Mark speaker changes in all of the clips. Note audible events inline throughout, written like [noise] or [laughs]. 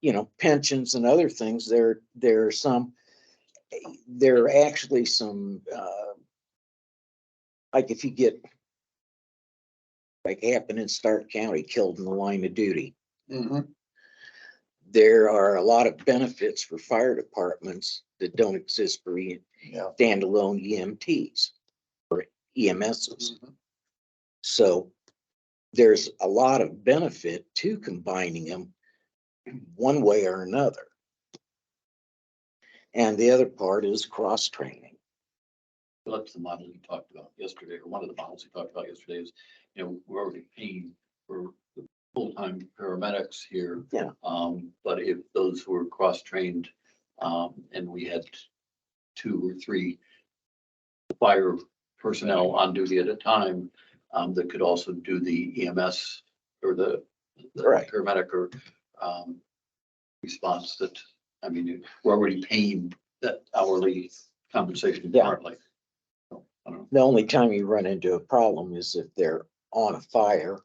Speaker 1: you know, pensions and other things, there, there are some, there are actually some, uh, like if you get like happened in Stark County, killed in the line of duty,
Speaker 2: Mhm.
Speaker 1: there are a lot of benefits for fire departments that don't exist for E-
Speaker 2: Yeah.
Speaker 1: standalone EMTs or E EMSs.
Speaker 2: Mhm.
Speaker 1: So there's a lot of benefit to combining them one way or another. And the other part is cross training.
Speaker 3: Well, That's the model we talked about yesterday, or one of the models we talked about yesterday is, you know, we're already paying for the full-time paramedics here.
Speaker 1: Yeah.
Speaker 3: Um, but if those were cross-trained, um, and we had two or three fire personnel on duty at a time, um, that could also do the EMS or the the
Speaker 1: Right.
Speaker 3: paramedic or, um, response that, I mean, we're already paying that hourly compensation
Speaker 1: Yeah.
Speaker 3: currently. So, I don't know.
Speaker 1: The only time you run into a problem is if they're on a fire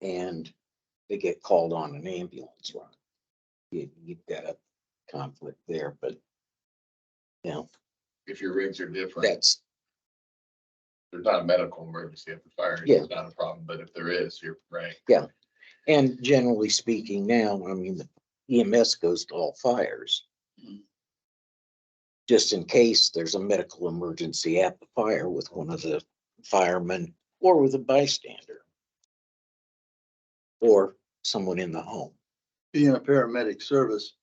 Speaker 1: and they get called on an ambulance run. You, you've got a conflict there, but
Speaker 2: If your rigs are different,
Speaker 1: that's,
Speaker 2: there's not a medical emergency at the fire,
Speaker 1: Yeah.
Speaker 2: it's not a problem, but if there is, you're right.
Speaker 1: and generally speaking now, I mean, the EMS goes to all fires.
Speaker 3: Mhm.
Speaker 1: Just in case there's a medical emergency at the fire with one of the firemen or with a bystander. Or someone in the home.
Speaker 4: being a paramedic service,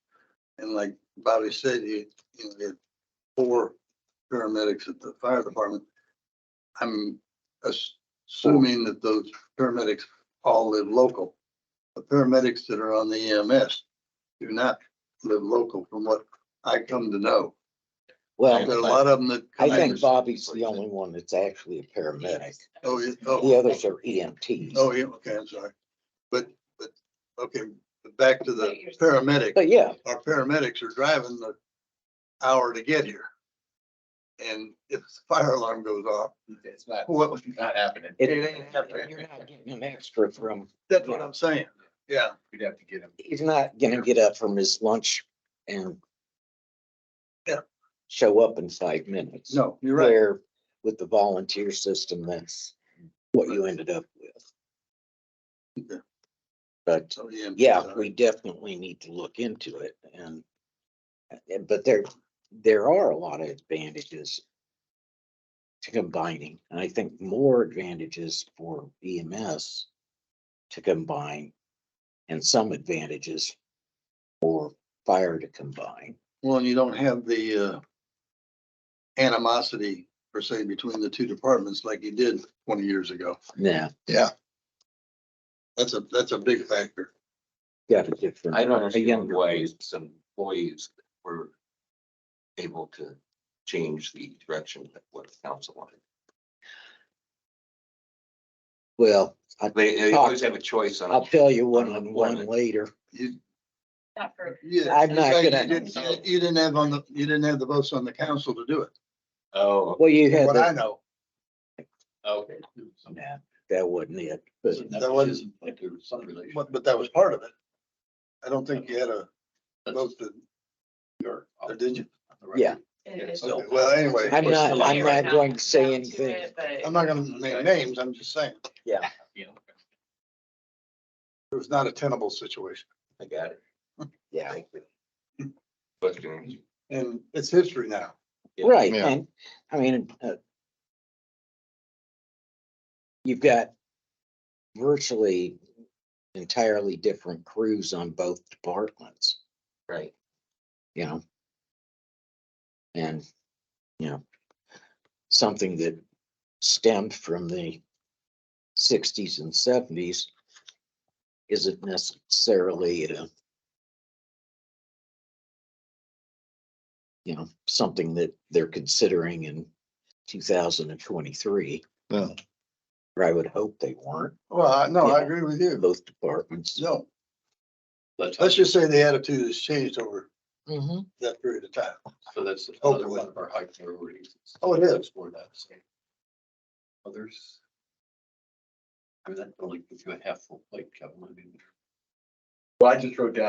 Speaker 4: and like Bobby said, you, you know, there are four paramedics at the fire department. I'm ass- assuming that those paramedics all live local. The paramedics that are on the EMS do not live local from what I come to know. There are a
Speaker 1: Well,
Speaker 4: lot of them that.
Speaker 1: I
Speaker 4: come
Speaker 1: think
Speaker 4: in-
Speaker 1: Bobby's the only one that's actually a paramedic.
Speaker 4: Oh, yeah, oh.
Speaker 1: The others are E EMTs.
Speaker 4: Oh, yeah, okay, I'm sorry. But, but, okay, but back to the paramedic.
Speaker 1: But yeah,
Speaker 4: our paramedics are driving the hour to get here. And if the fire alarm goes off,
Speaker 2: It's not,
Speaker 4: Well-
Speaker 2: it's not happening.
Speaker 1: it,
Speaker 4: It ain't happening.
Speaker 1: you're not getting an extra from,
Speaker 4: that's what I'm saying. Yeah,
Speaker 2: We'd have to get him.
Speaker 1: he's not gonna get up from his lunch and
Speaker 4: Yeah.
Speaker 1: show up in five minutes.
Speaker 4: no, you're right.
Speaker 1: Where with the volunteer system, that's what you ended up with.
Speaker 4: Okay.
Speaker 1: But
Speaker 4: So, yeah.
Speaker 1: yeah, we definitely need to look into it and, and- but there, there are a lot of advantages to combining, and I think more advantages for EMS to combine and some advantages for fire to combine.
Speaker 4: Well, and you don't have the uh animosity per se between the two departments like you did twenty years ago.
Speaker 1: Yeah,
Speaker 4: That's a, that's a big factor.
Speaker 1: got a different.
Speaker 5: I don't
Speaker 1: a
Speaker 5: understand
Speaker 1: younger
Speaker 5: why some employees were able to change the direction that what the council wanted.
Speaker 1: Well, I-
Speaker 5: They,
Speaker 4: Oh.
Speaker 5: they always have a choice on.
Speaker 1: I'll tell you one on one
Speaker 5: Unemployment.
Speaker 4: [laughs]
Speaker 1: later.
Speaker 4: You,
Speaker 6: Not for,
Speaker 4: yeah.
Speaker 1: I'm not
Speaker 4: you
Speaker 1: gonna-
Speaker 4: didn't- You you didn't have on the, you didn't have the votes on the council to do it.
Speaker 5: Oh,
Speaker 1: Well, you had,
Speaker 4: What I
Speaker 1: the-
Speaker 4: know,
Speaker 3: Okay.
Speaker 1: nah, that wasn't it, but
Speaker 4: That wasn't-
Speaker 3: Like there was some relation.
Speaker 4: but, but that was part of it. I don't think you had a vote to, or did you?
Speaker 1: yeah.
Speaker 6: it's
Speaker 4: Okay, well, anyway,
Speaker 1: I'm
Speaker 5: It's
Speaker 1: not,
Speaker 5: still
Speaker 1: I'm
Speaker 5: here
Speaker 1: not
Speaker 6: now.
Speaker 1: going to say
Speaker 6: down to
Speaker 1: anything.
Speaker 6: it, but-
Speaker 4: I'm not gonna name names, I'm just saying,
Speaker 3: You know,
Speaker 4: it was not a tenable situation.
Speaker 5: I got
Speaker 4: [laughs]
Speaker 5: it.
Speaker 1: Yeah,
Speaker 5: Thank you. Question,
Speaker 4: And it's history now.
Speaker 5: Yeah.
Speaker 1: right,
Speaker 2: Yeah.
Speaker 1: and, I mean, uh, you've got virtually entirely different crews on both departments,
Speaker 5: right.
Speaker 1: you know? And, you know, something that stemmed from the sixties and seventies isn't necessarily uh, a you know, something that they're considering in two thousand and twenty-three.
Speaker 2: Yeah.
Speaker 1: Or I would hope they weren't,
Speaker 4: Well, I- no, I agree with you.
Speaker 1: both departments.
Speaker 4: No,
Speaker 3: That's,
Speaker 4: let's just say the attitude has changed over
Speaker 1: Mhm.
Speaker 4: that period of time.
Speaker 3: so that's another
Speaker 4: Hopefully.
Speaker 3: one of our high priorities.
Speaker 4: Oh, it is.
Speaker 3: For that. so. Others? I mean, that only gives you a half full plate, Kevin, I mean.
Speaker 2: Well, I just wrote down